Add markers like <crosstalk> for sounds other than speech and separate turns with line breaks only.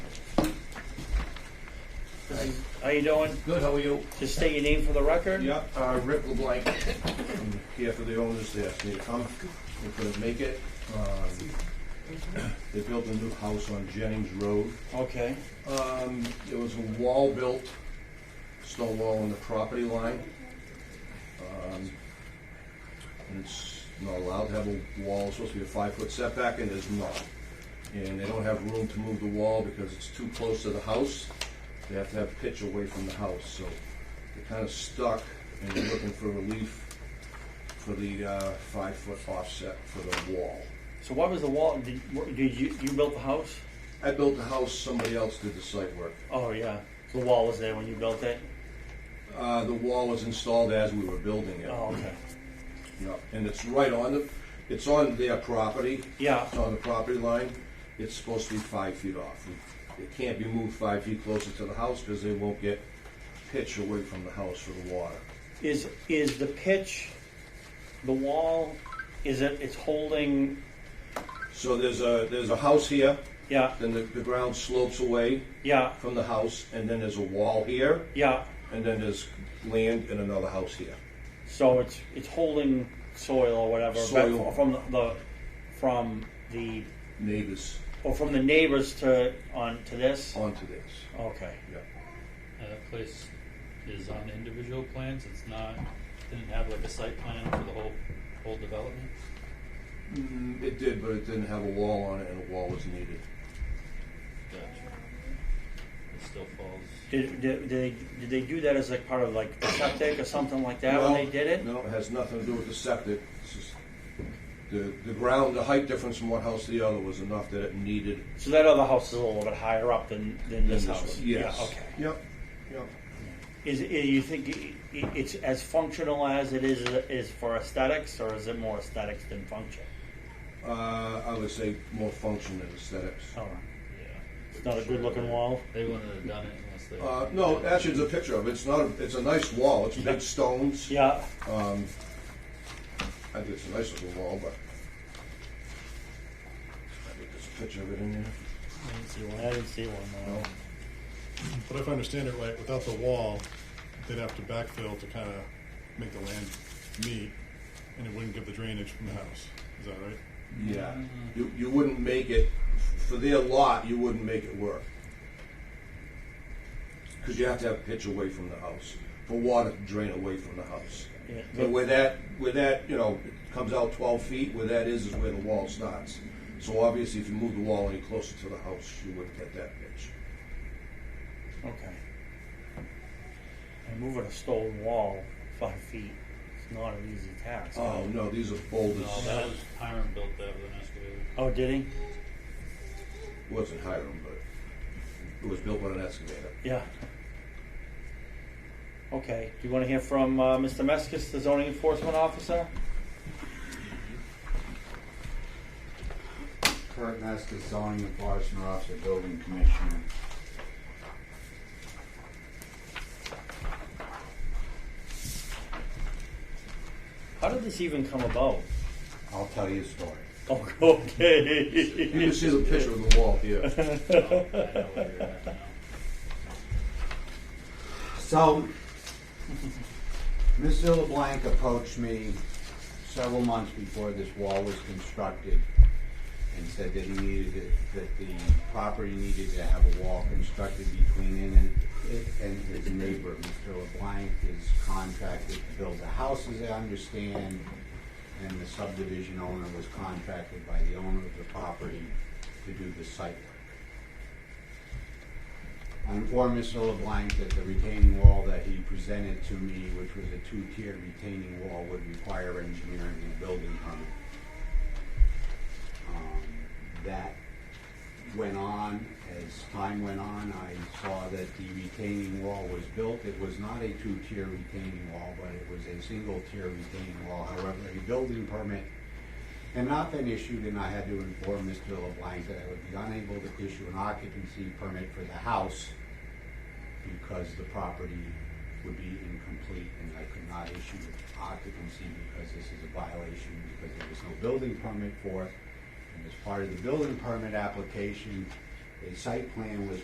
How you doing?
Good, how are you?
Just state your name for the record.
Yeah, uh, Rick <laughs> LeBlanc, I'm here for the owners, they asked me to come, they couldn't make it. Um, They built a new house on Jennings Road.
Okay.
Um, there was a wall built, stone wall on the property line. Um, and it's not allowed to have a wall, it's supposed to be a five-foot setback, and it's not. And they don't have room to move the wall because it's too close to the house. They have to have pitch away from the house, so they're kind of stuck and they're looking for relief for the, uh, five-foot offset for the wall.
So what was the wall? Did, what- did you you built the house?
I built the house, somebody else did the site work.
Oh yeah. The wall was there when you built it.
Uh, the wall was installed as we were building it.
Oh okay.
Yeah, and it's right on the, it's on their property.
Yeah.
It's on the property line. It's supposed to be five feet off. It can't be moved five feet closer to the house because they won't get pitch away from the house for the water.
Is is the pitch, the wall, is it? It's holding.
So there's a, there's a house here,
Yeah.
then the, the ground slopes away
Yeah.
from the house, and then there's a wall here,
Yeah.
and then there's land and another house here.
So it's it's holding soil or whatever back
Soil.
from the, the from the
Neighbors
or from the neighbors to on to this.
onto this,
Okay.
yeah.
Uh, That place is on individual plans, it's not, didn't have like a site plan for the whole, whole development?
Mm, It did, but it didn't have a wall on it, and a wall was needed.
Gotcha. It still falls,
Did, did, did, they, did they do that as like part of like the septic or something like that when
No,
they did it?
No, it has nothing to do with the septic. It's just the, the ground, the height difference from one house to the other was enough that it needed.
So that other house is a little bit higher up than, than this house?
Yes.
Yeah, okay.
Yep, yep.
Is, it- you think i- i- it's as functional as it is, is for aesthetics, or is it more aesthetics than function?
Uh, I would say more function than aesthetics.
All right.
yeah.
It's not a good looking wall?
They wouldn't have done it unless they.
Uh, no, actually, there's a picture of it. It's not, a- it's a nice wall. It's big stones.
Yeah,
Um, I think it's a nice little wall, but I think there's a picture of it in there.
I didn't see one, I didn't see one,
No.
no.
But if I understand it right, without the wall, they'd have to backfill to kind of make the land meet, and it wouldn't give the drainage from the house. Is that right?
Yeah. You, you wouldn't make it, for their lot, you wouldn't make it work. Because you have to have pitch away from the house, for water to drain away from the house.
Yeah,
But
but-
where that, where that, you know, it comes out twelve feet, where that is, is where the wall starts. So obviously, if you move the wall any closer to the house, you wouldn't get that pitch.
Okay. And moving a stone wall five feet, it's not an easy task.
Oh, no, these are boulders.
No, that was, Hiram built that with an excavator.
Oh, did he?
It wasn't Hiram, but it was built with an excavator.
Yeah. Okay, do you want to hear from uh, Mr. Meskis, the zoning enforcement officer?
Kurt Meskis, zoning enforcement officer, building commissioner.
How did this even come about? <laughs>
I'll tell you a story.
Oh, okay.
You can see the picture of the wall
<laughs>
here. <laughs>
Oh, I know where you're at now.
So, Mr. LeBlanc approached me several months before this wall was constructed and said that he needed, it- that the property needed to have a wall constructed between it and, it and his neighbor. Mr. LeBlanc is contracted to build the house, as I understand, and the subdivision owner was contracted by the owner of the property to do the site work. I informed Mr. LeBlanc that the retaining wall that he presented to me, which was a two-tiered retaining wall, would require engineering and building permit. Um, That went on, as time went on, I saw that the retaining wall was built. It was not a two-tier retaining wall, but it was a single-tier retaining wall. However, a building permit had not been issued, and I had to inform Mr. LeBlanc that I would be unable to issue an occupancy permit for the house because the property would be incomplete, and I could not issue occupancy because this is a violation, because there was no building permit for it. And as part of the building permit application, a site plan was